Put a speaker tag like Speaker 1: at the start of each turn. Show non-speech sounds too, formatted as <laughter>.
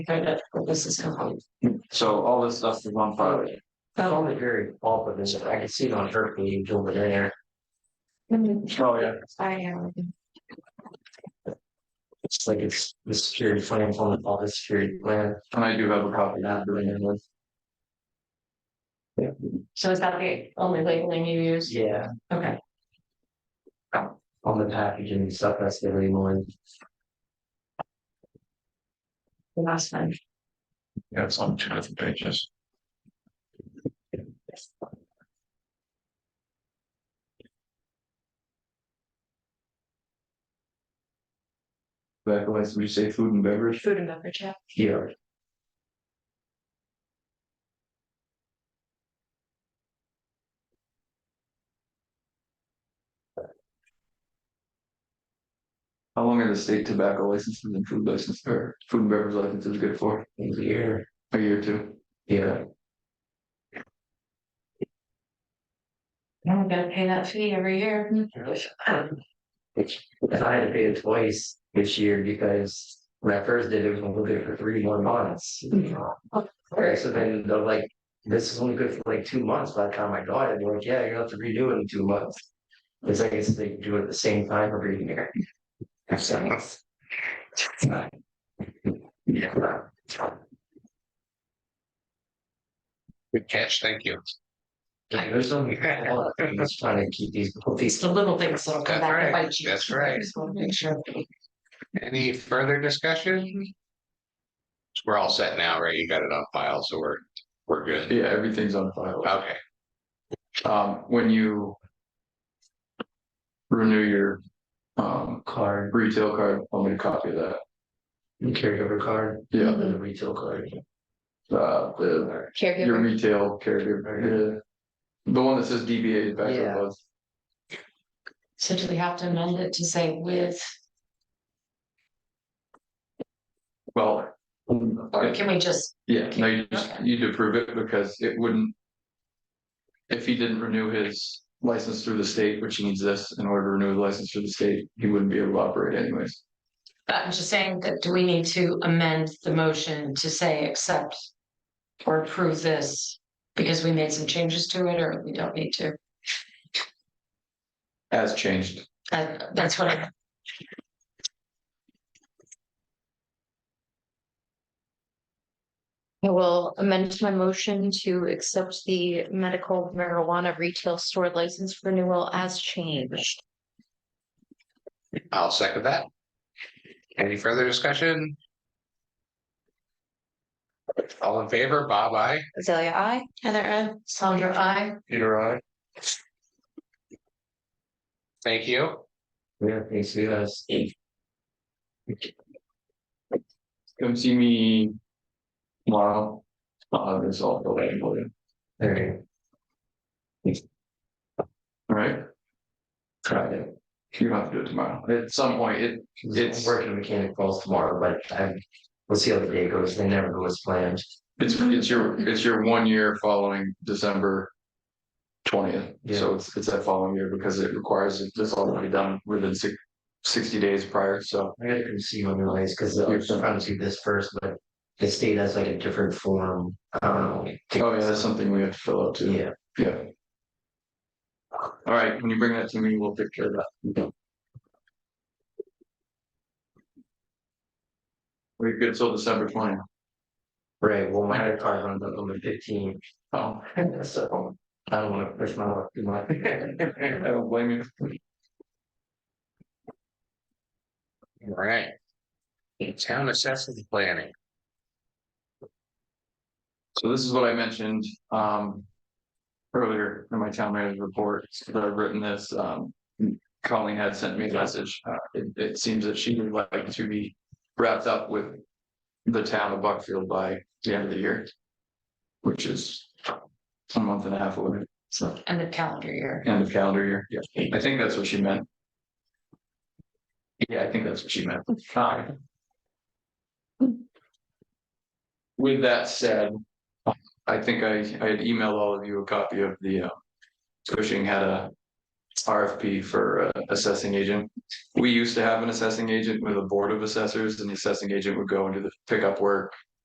Speaker 1: Kind of, this is complete.
Speaker 2: So all this stuff is on fire.
Speaker 3: It's
Speaker 1: Oh,
Speaker 3: only very pulpit, and I can see it on her page over there.
Speaker 2: Oh, yeah.
Speaker 1: I um,
Speaker 3: It's like it's the security plan, on all the security plan.
Speaker 2: And I do have a copy now doing it with.
Speaker 1: so is that the only labeling you use?
Speaker 3: Yeah.
Speaker 1: Okay,
Speaker 3: On the packaging and stuff, that's the only one.
Speaker 1: the last one.
Speaker 2: Yeah, it's on two different pages. Back away, so you say food and beverage?
Speaker 1: Food and beverage, yeah.
Speaker 3: Here,
Speaker 2: How long are the state tobacco licenses and food license or food and beverage licenses good for?
Speaker 3: here,
Speaker 2: A year or two?
Speaker 3: yeah,
Speaker 1: I'm gonna pay that fee every year.
Speaker 3: <clears throat> and I had to pay it twice this year because when I first did it, it was only good for three more months. Alright, so then they're like, this is only good for like two months by the time I got it, they're like, yeah, you're gonna have to redo it in two months. It's like, it's they do it at the same time every year. So. Yeah.
Speaker 4: Good catch, thank you.
Speaker 3: There's only a lot of things trying to keep these, these
Speaker 1: The little things that'll come
Speaker 4: That's
Speaker 1: back and
Speaker 4: right,
Speaker 1: bite you.
Speaker 4: that's right.
Speaker 1: I Just wanna make sure.
Speaker 4: Any further discussion? We're all set now, right? You got it on file, so we're, we're good.
Speaker 2: Yeah, everything's on file.
Speaker 4: Okay,
Speaker 2: Um, when you. Renew your, um,
Speaker 3: card,
Speaker 2: retail card, I'll make a copy of that.
Speaker 3: carryover card,
Speaker 2: Yeah,
Speaker 3: the retail card.
Speaker 2: uh, the, your
Speaker 1: Mm-hmm. Caregiver. Mm-hmm.
Speaker 2: retail caregiver, yeah. The one that says DBA is back
Speaker 3: Yeah.
Speaker 2: above.
Speaker 1: So do we have to amend it to say with,
Speaker 2: Well.
Speaker 1: or
Speaker 2: I-
Speaker 1: can we just,
Speaker 2: Yeah, no, you just,
Speaker 1: Mm-hmm. Okay.
Speaker 2: you'd approve it because it wouldn't. If he didn't renew his license through the state, which he needs this in order to renew his license through the state, he wouldn't be able to operate anyways.
Speaker 1: I'm just saying that do we need to amend the motion to say accept or approve this? Because we made some changes to it or we don't need to?
Speaker 2: As changed.
Speaker 1: Uh, that's what I.
Speaker 5: I will amend my motion to accept the medical marijuana retail store license renewal as changed.
Speaker 4: I'll second that. Any further discussion? All in favor, Bob, I,
Speaker 5: Azalea, I.
Speaker 1: Heather, I, Sandra, I,
Speaker 3: Peter, I.
Speaker 4: thank you.
Speaker 3: Yeah, thanks, you guys.
Speaker 2: Come see me tomorrow. Uh, this all the way, all
Speaker 3: There,
Speaker 2: right?
Speaker 3: tried it.
Speaker 2: You don't have to do it tomorrow. At some point, it, It's-
Speaker 3: It's working mechanic calls tomorrow, but I, we'll see how the day goes. They never go as planned.
Speaker 2: it's, it's your, it's your one year following December. Twentieth, so
Speaker 3: Yeah.
Speaker 2: it's, it's that following year because it requires this all to be done within six, sixty days prior, so.
Speaker 3: I gotta go see one anyways, cause I was trying to do this first, but the state has like a different form. Oh,
Speaker 2: Oh, yeah, that's something we have to fill out too.
Speaker 3: Yeah,
Speaker 2: Yeah. All right, when you bring that to me, we'll take care of that. We're good till December twentieth.
Speaker 3: right. Well, my other car's on the, on the fifteen,
Speaker 2: <laughs> Oh,
Speaker 3: <laughs> so I don't wanna push my luck too much. <laughs>
Speaker 2: I don't blame you.
Speaker 4: All right. Town assessment planning,
Speaker 2: So this is what I mentioned, um. Earlier in my town manager's report, that I've written this, um, Colleen had sent me a message, uh, it, it seems that she would like to be wrapped up with. The town of Buckfield by the end of the year. Which is a month and a half away, so
Speaker 1: and the calendar year.
Speaker 2: end of calendar year, yeah, I think that's what she meant. Yeah, I think that's what she meant. Fine. With that said, I think I, I had emailed all of you a copy of the, uh, Cushing had a RFP for uh, assessing agent. We used to have an assessing agent with a board of assessors, and the assessing agent would go and do the pickup work,